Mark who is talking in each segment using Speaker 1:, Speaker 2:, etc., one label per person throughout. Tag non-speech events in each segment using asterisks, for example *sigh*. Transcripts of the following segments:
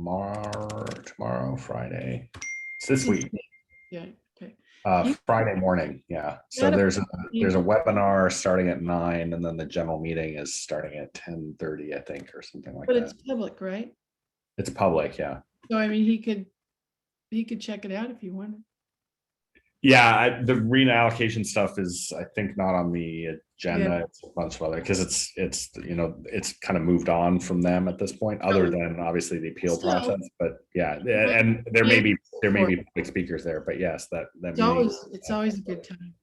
Speaker 1: tomorrow, tomorrow, Friday. It's this week,
Speaker 2: Yeah, okay.
Speaker 1: uh,
Speaker 2: You-
Speaker 1: Friday morning. Yeah. So
Speaker 2: gotta-
Speaker 1: there's, a Uh, there's a webinar starting at nine and then the general meeting is starting at ten thirty, I think, or something like
Speaker 2: But it's
Speaker 1: that.
Speaker 2: public, right?
Speaker 1: It's public. Yeah.
Speaker 2: So I mean, he could, he could check it out if you wanted.
Speaker 1: Yeah, I, the arena allocation stuff is, I think, not on the agenda. It's a bunch of other because it's it's you know it's kind of moved on from them at this point, other
Speaker 2: Sure.
Speaker 1: than obviously the appeal
Speaker 2: Still.
Speaker 1: process. But yeah, a- and there may be there may
Speaker 2: Sure.
Speaker 1: be public speakers there, but yes, that that
Speaker 2: It's
Speaker 1: meeting.
Speaker 2: always, it's always a good time.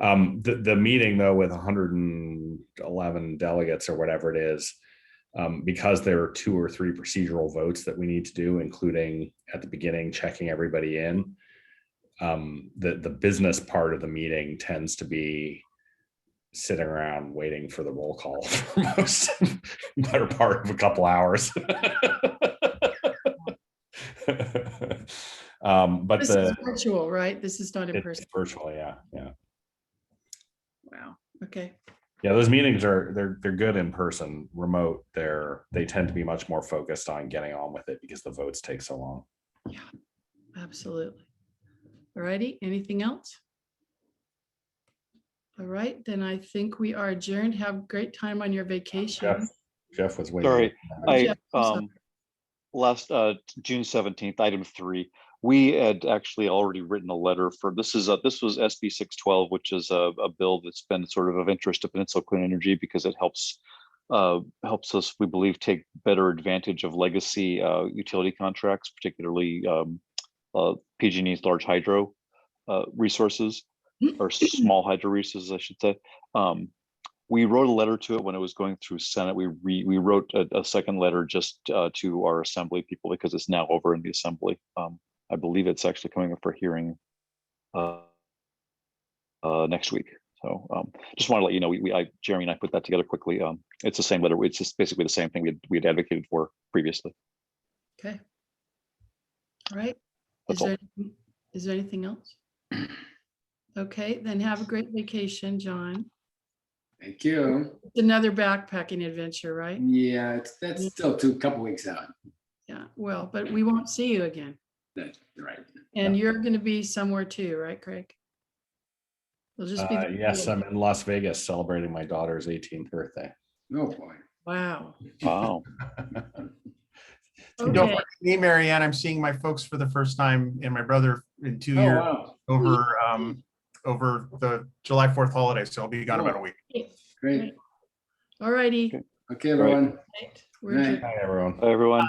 Speaker 1: Um, the the meeting though with 111 delegates or whatever it is, um, because there are two or three procedural votes that we need to do, including at the beginning checking everybody in. Um, the the business part of the meeting tends to be sitting around waiting for the roll call *laughs* for most better part of a couple hours. *laughs* um, but
Speaker 2: This
Speaker 1: the
Speaker 2: is virtual, right? This is not in
Speaker 1: it's
Speaker 2: person.
Speaker 1: virtual, yeah, yeah.
Speaker 2: Wow. Okay.
Speaker 1: Yeah, those meetings are they're they're good in person. Remote, they're they tend to be much more focused on getting on with it because the votes take so long.
Speaker 2: Absolutely. All righty, anything else? All right, then I think we are adjourned. Have a great time on your vacation.
Speaker 1: Jeff, Jeff was waiting. Uh,
Speaker 3: Sorry, I,
Speaker 2: Yeah, I'm sorry.
Speaker 3: um, last, uh, June seventeenth, item three, we had actually already written a letter for, this is, a- this was SB six twelve, which is a, a bill that's been sort of of interest to Peninsula Clean Energy because it helps, uh, helps us, we believe, take better advantage of legacy, uh, utility contracts, particularly, um, uh, PG&E's large hydro, uh, resources or small hydro resources, I should say. Um, we wrote a letter to it when it was going through Senate. We re, we wrote a, a second letter just uh, to our assembly people because it's now over in the assembly. Um, I believe it's actually coming up for hearing uh, uh, next week. So um, just want to let you know, we, we, I, Jeremy and I put that together quickly. Um, it's the same letter. It's just basically the same thing we had, we had advocated for previously.
Speaker 2: Okay. All right. Is
Speaker 3: That's all.
Speaker 2: there, anything- is there anything else? Okay, then have a great vacation, John.
Speaker 4: Thank you.
Speaker 2: It's Another backpacking adventure,
Speaker 1: Mm-hmm.
Speaker 2: right?
Speaker 4: Yeah, it's, that's still two, couple weeks out.
Speaker 2: Yeah, well, but we won't see you again.
Speaker 4: That's right.
Speaker 2: And you're going to be somewhere too, right, Craig? It'll just be.
Speaker 1: Uh,
Speaker 2: the
Speaker 1: yes,
Speaker 2: four of
Speaker 1: I'm
Speaker 2: you.
Speaker 1: in Las Vegas celebrating my daughter's 18th birthday. *laughs*
Speaker 4: No Oh, boy.
Speaker 2: Wow.
Speaker 3: Wow.
Speaker 5: And Don't
Speaker 2: Okay.
Speaker 5: forget me, Marianne. I'm seeing my folks for the first time and my brother in two
Speaker 4: Oh,
Speaker 5: years
Speaker 4: wow.
Speaker 5: over um over the July 4th holiday. So I'll be gone about a week.
Speaker 4: Great.
Speaker 2: All righty.
Speaker 4: Okay,
Speaker 3: Right.
Speaker 4: everyone.
Speaker 2: Right, we're
Speaker 4: Right.
Speaker 2: adjourned.
Speaker 1: Hi, everyone.
Speaker 3: Hi, everyone.